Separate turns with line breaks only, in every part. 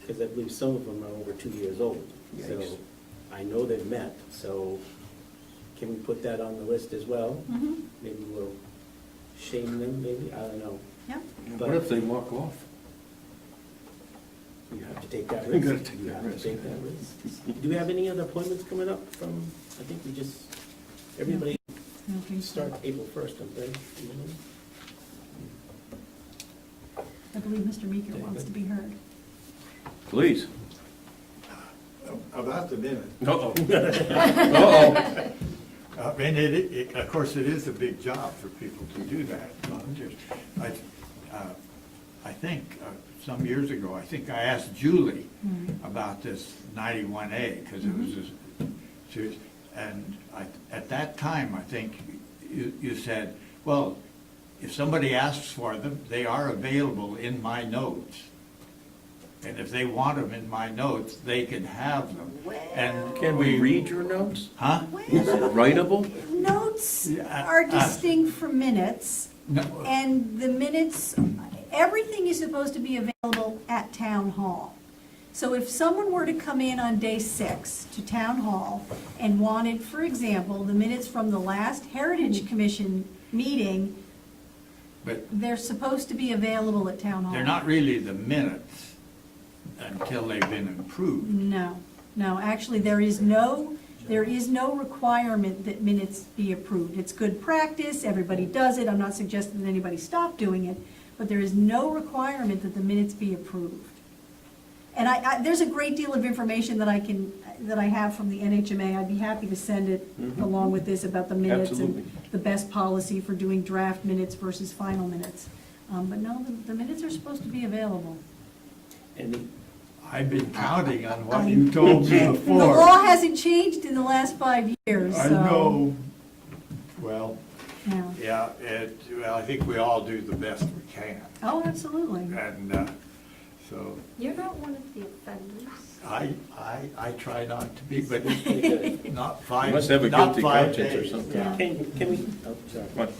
because I believe some of them are over two years old.
Yikes.
So I know they've met, so can we put that on the list as well?
Mhm.
Maybe we'll shame them, maybe, I don't know.
Yep.
What if they walk off?
You have to take that
You
risk.
gotta take
You
that
have to
risk.
take that risk. Do we have any other appointments coming up from, I think we just, everybody
I don't think so.
starts April first, I'm right? You know?
I believe Mr. Meeker wants to be heard.
Please.
About the minute,
Uh-oh. Uh-oh.
I mean, Uh, it, it, of course, it is a big job for people to do that, volunteers. I, uh, I think, uh, some years ago, I think I asked Julie
Mm-hmm.
Mhm.
about this ninety-one A, because it was, a- she was, and I, at that time, I think you, you said, well, if somebody asks for them, they are available in my notes. And if they want them in my notes, they can have them. And
Can we read your notes?
Huh?
Is it writable?
Notes
Yeah,
are
uh, uh.
distinct from minutes,
No.
and the minutes, everything is supposed to be available at town hall. So if someone were to come in on day six to town hall and wanted, for example, the minutes from the last Heritage Commission meeting,
But
they're supposed to be available at town hall.
they're not really the minutes until they've been improved.
No, no, actually, there is no, there is no requirement that minutes be approved. It's good practice, everybody does it, I'm not suggesting that anybody stop doing it, but there is no requirement that the minutes be approved. And I, I, there's a great deal of information that I can, that I have from the NHMA, I'd be happy to send it
Mhm.
along with this about the minutes
Absolutely.
and the best policy for doing draft minutes versus final minutes. Um, but no, the, the minutes are supposed to be available.
And the-
I've been counting on what you told me
The law
before.
hasn't changed in the last five years, so.
I know, well,
Yeah.
yeah, it, well, I think we all do the best we can.
Oh, absolutely.
And, uh, so,
You're not one of the offenders.
I, I, I try not to be, but not
You
five,
must have a
not
guilty
five
conscience or
days.
something.
Yeah.
Can, can we, oh, sorry.
What?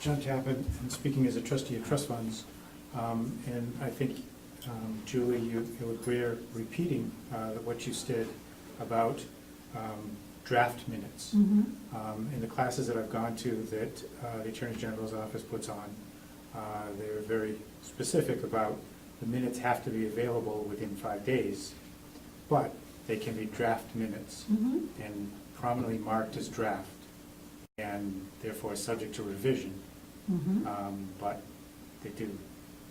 John Tappan, and speaking as a trustee of trust funds, um, and I think, um, Julie, you you would bear repeating uh, what you said about um, draft minutes.
Mhm.
Um, In the classes that I've gone to that uh, the Attorney General's office puts on, uh, they're very specific about the minutes have to be available within five days, but they can be draft minutes
Mhm.
and prominently marked as draft, and therefore subject to revision.
Mhm.
Um, But they do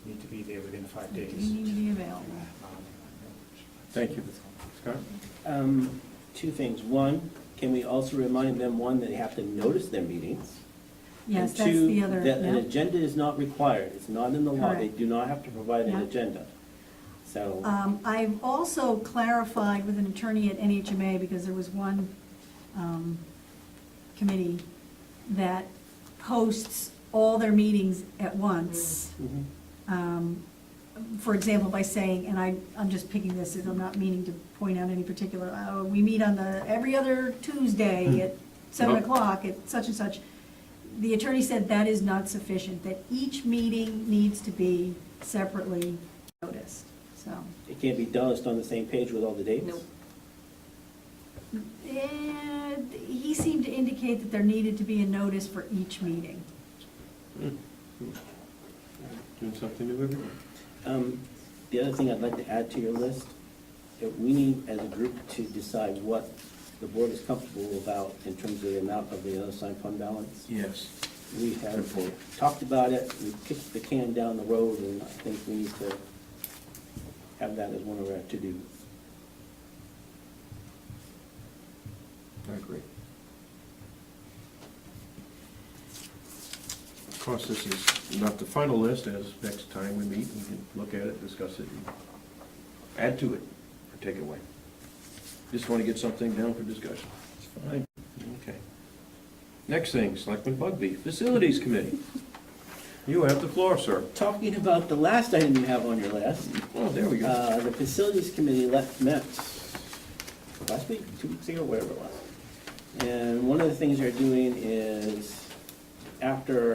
need to be there within five
They
days.
do need to be available.
Um,
Thank you. Scott?
Um, Two things. One, can we also remind them, one, that they have to notice their meetings?
Yes,
And
that's
two,
the other,
that an
yeah.
agenda is not required. It's not in the law. They
Correct.
do not have to provide an
Yeah.
agenda. So.
Um, I've also clarified with an attorney at NHMA, because there was one um, committee that posts all their meetings at once.
mhm.
um, for example, by saying, and I, I'm just picking this, and I'm not meaning to point out any particular, uh, we meet on the, every other Tuesday at seven
Nope.
o'clock at such and such. The attorney said that is not sufficient, that each meeting needs to be separately noticed, so.
It can't be done on the same page with all the dates?
Nope.
And he seemed to indicate that there needed to be a notice for each meeting.
Hmm. Doing something new every day.
Um, The other thing I'd like to add to your list, that we need as a group to decide what the board is comfortable about in terms of the amount of the other unassigned fund balance.
Yes.
We
Good
have
point.
talked about it, we kicked the can down the road, and I think we need to have that as one of our to-dos.
I agree. Of course, this is not the final list, as next time we meet, we can look at it, discuss it, and add to it, or take it away. Just want to get something down for discussion. It's fine, okay. Next thing, Selectman Bugby, Facilities Committee. You have the floor, sir.
Talking about the last item you have on your list,
Well, there we go.
Uh, The facilities committee left, met last week, two weeks ago, whatever it was. And one of the things they're doing is, after